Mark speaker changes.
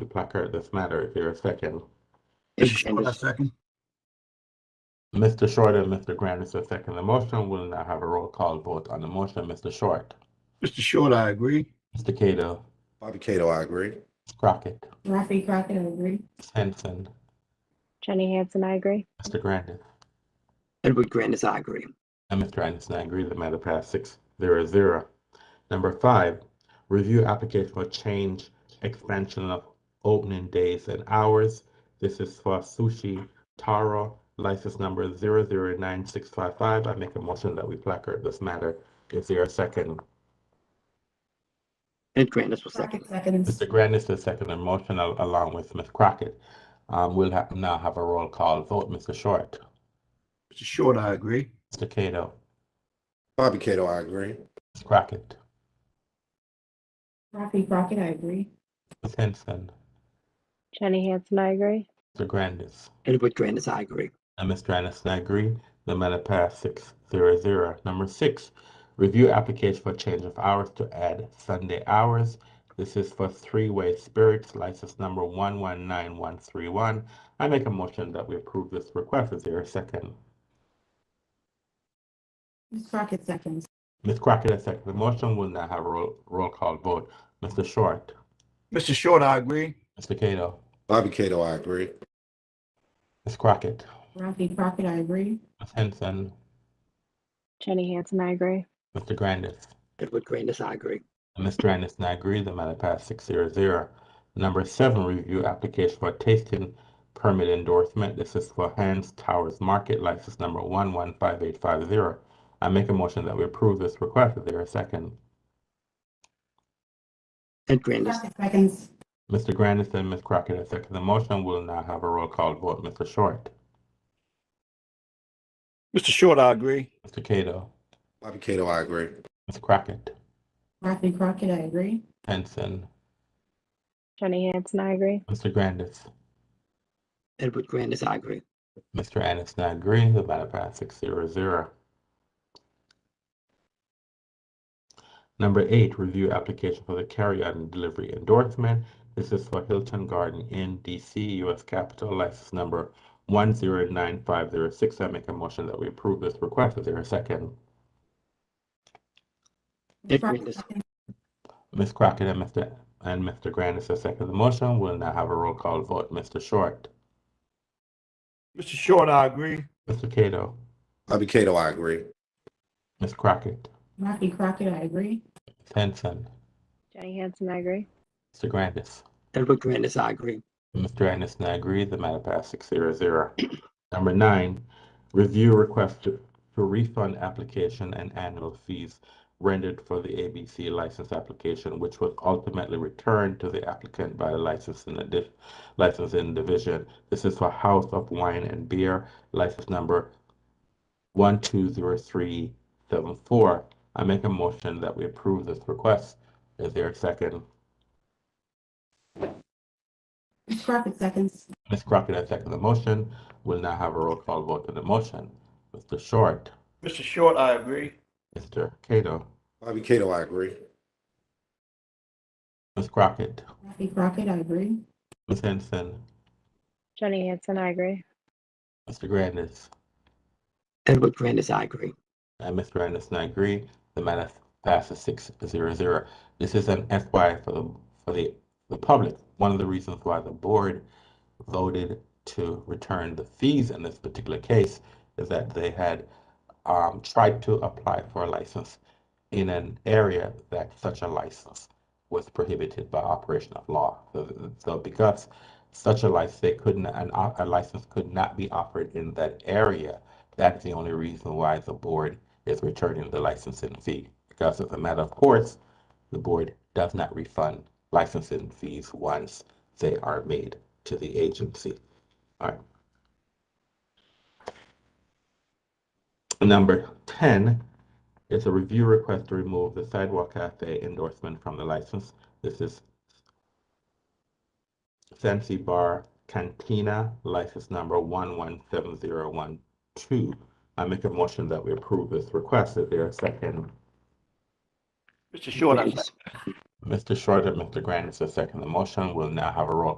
Speaker 1: to placard this matter if you're a second.
Speaker 2: Mr. Short, I second.
Speaker 1: Mr. Short and Mr. Grandis are second the motion. We'll now have a roll call vote on the motion. Mr. Short,
Speaker 2: Mr. Short, I agree.
Speaker 1: Mr. Cato,
Speaker 3: Bobby Cato, I agree.
Speaker 1: Crockett,
Speaker 4: Rafi Crockett, I agree.
Speaker 1: Henson,
Speaker 5: Jenny Hansen, I agree.
Speaker 1: Mr. Grandis,
Speaker 6: Edward Grandis, I agree.
Speaker 1: and Mr. Anderson. I agree. The matter passed six zero zero. Number five, review application for change expansion of opening days and hours. This is for Sushi Taro, license number zero zero nine six five five. I make a motion that we placard this matter. Is there a second?
Speaker 6: Ed Grandis will second.
Speaker 4: Crockett seconds.
Speaker 1: Mr. Grandis has seconded the motion al- along with Ms. Crockett. Um, we'll ha- now have a roll call vote. Mr. Short,
Speaker 2: Mr. Short, I agree.
Speaker 1: Mr. Cato,
Speaker 3: Bobby Cato, I agree.
Speaker 1: Ms. Crockett,
Speaker 4: Rafi Crockett, I agree.
Speaker 1: Ms. Henson,
Speaker 5: Jenny Hansen, I agree.
Speaker 1: Mr. Grandis,
Speaker 6: Edward Grandis, I agree.
Speaker 1: and Mr. Anderson. I agree. The matter passed six zero zero. Number six, review application for change of hours to add Sunday hours. This is for Three Way Spirits, license number one one nine one three one. I make a motion that we approve this request. Is there a second?
Speaker 4: Ms. Crockett seconds.
Speaker 1: Ms. Crockett has seconded the motion. We'll now have a roll, roll call vote. Mr. Short,
Speaker 2: Mr. Short, I agree.
Speaker 1: Mr. Cato,
Speaker 3: Bobby Cato, I agree.
Speaker 1: Ms. Crockett,
Speaker 4: Rafi Crockett, I agree.
Speaker 1: Ms. Henson,
Speaker 5: Jenny Hansen, I agree.
Speaker 1: Mr. Grandis.
Speaker 6: Edward Grandis, I agree.
Speaker 1: And Mr. Anderson, I agree. The matter passed six zero zero. Number seven, review application for tasting permit endorsement. This is for Hans Towers Market, license number one one five eight five zero. I make a motion that we approve this request. Is there a second?
Speaker 6: Ed Grandis,
Speaker 4: Crockett seconds.
Speaker 1: Mr. Grandis and Ms. Crockett have seconded the motion. We'll now have a roll call vote. Mr. Short,
Speaker 2: Mr. Short, I agree.
Speaker 1: Mr. Cato,
Speaker 3: Bobby Cato, I agree.
Speaker 1: Ms. Crockett,
Speaker 4: Rafi Crockett, I agree.
Speaker 1: Henson,
Speaker 5: Jenny Hansen, I agree.
Speaker 1: Mr. Grandis.
Speaker 6: Edward Grandis, I agree.
Speaker 1: Mr. Anderson, I agree. The matter passed six zero zero. Number eight, review application for the carryout and delivery endorsement. This is for Hilton Garden Inn, DC, US Capitol, license number one zero nine five zero six. I make a motion that we approve this request. Is there a second?
Speaker 4: Ms. Crockett
Speaker 6: Agreed.
Speaker 4: seconds.
Speaker 1: Ms. Crockett and Mr. and Mr. Grandis has seconded the motion. We'll now have a roll call vote. Mr. Short,
Speaker 2: Mr. Short, I agree.
Speaker 1: Mr. Cato,
Speaker 3: Bobby Cato, I agree.
Speaker 1: Ms. Crockett,
Speaker 4: Rafi Crockett, I agree.
Speaker 1: Ms. Henson,
Speaker 5: Jenny Hansen, I agree.
Speaker 1: Mr. Grandis.
Speaker 6: Edward Grandis, I agree.
Speaker 1: Mr. Anderson, I agree. The matter passed six zero zero. Number nine, review request to to refund application and annual fees rendered for the ABC license application, which was ultimately returned to the applicant by the licensing addi- licensing division. This is for House of Wine and Beer, license number one two zero three seven four. I make a motion that we approve this request. Is there a second?
Speaker 4: Ms. Crockett seconds.
Speaker 1: Ms. Crockett has seconded the motion. We'll now have a roll call vote on the motion. Mr. Short,
Speaker 2: Mr. Short, I agree.
Speaker 1: Mr. Cato,
Speaker 3: Bobby Cato, I agree.
Speaker 1: Ms. Crockett,
Speaker 4: Rafi Crockett, I agree.
Speaker 1: Ms. Henson,
Speaker 5: Jenny Hansen, I agree.
Speaker 1: Mr. Grandis,
Speaker 6: Edward Grandis, I agree.
Speaker 1: and Mr. Anderson, I agree. The matter passes six zero zero. This is an FYI for the, for the, the public. One of the reasons why the board voted to return the fees in this particular case is that they had um, tried to apply for a license in an area that such a license was prohibited by operation of law. So, so because such a license, they couldn't, an, o- a license could not be offered in that area. That's the only reason why the board is returning the licensing fee. Because as a matter of course, the board does not refund licensing fees once they are made to the agency. All right. Number ten is a review request to remove the Sidewalk Cafe endorsement from the license. This is Fancy Bar Cantina, license number one one seven zero one two. I make a motion that we approve this request. Is there a second?
Speaker 2: Mr. Short, I
Speaker 6: Grandis,
Speaker 1: Mr. Shorter, Mr. Grandis has seconded the motion. We'll now have a roll